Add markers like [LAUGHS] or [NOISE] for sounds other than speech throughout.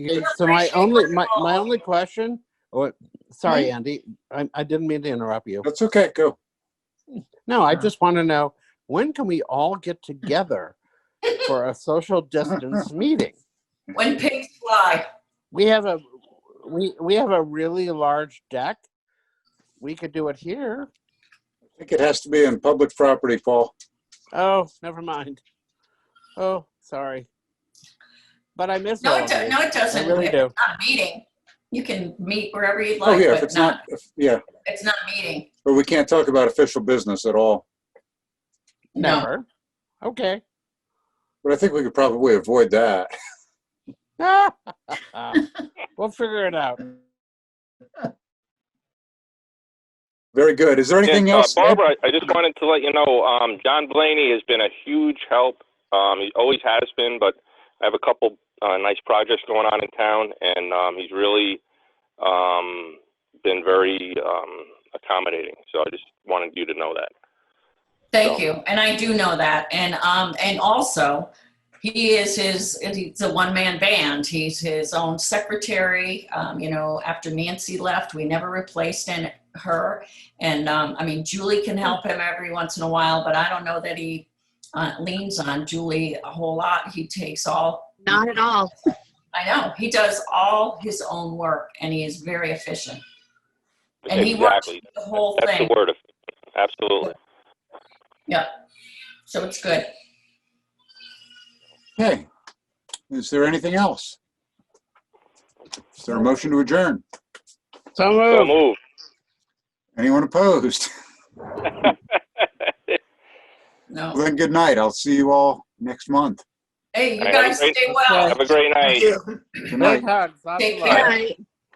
Okay, So my only, my, my only question, or, sorry, Mm-hmm. Andy, I, I didn't mean to interrupt you. That's okay, go. No, I just want to know, when can we all get together for a social distance meeting? When pigs fly. We have a, we, we have a really large deck. We could do it here. I think it has to be in public property, Paul. Oh, never mind. Oh, sorry. But I miss No, all it, of do- you. no, it doesn't. Oh. I really It's do. Not a meeting. You can meet wherever you'd Oh, like, yeah, if but it's not, not, if- yeah, it's not a meeting. but we can't talk about official business at all. No, Never. Okay. [LAUGHS] But I think we could probably avoid that. We'll figure it out. Very good. Is there anything Yes, uh, else? Ed? Barbara, I just wanted to let you know, um, John Blaney has been a huge help. Um, he always has been, but I have a couple uh, nice projects going on in town, and um, he's really um, been very um, accommodating. So I just wanted you to know that. thank you. And I do know that. And, um, and also, he is his, he's a one-man band. He's his own secretary. Um, you know, after Nancy left, we never replaced in her. And, um, I mean, Julie can help him every once in a while, but I don't know that he uh, leans on Julie a whole lot. He takes all Not at all. I know. He does all his own work and he is very efficient. And he works exactly. the whole That's thing. the word. Of, absolutely. Yeah. So it's good. Okay. Is there anything else? Is there a motion to adjourn? So So Oh. moved. move. Anyone opposed? [LAUGHS] Well, No. Then good night. I'll see you all next month. Hey, you All right, guys great. stay well. Have a great night. Good night. Big hugs. Lots of Take love. care.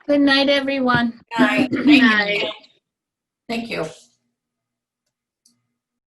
Good night, everyone. Good night. Thank you. Night. Thank you.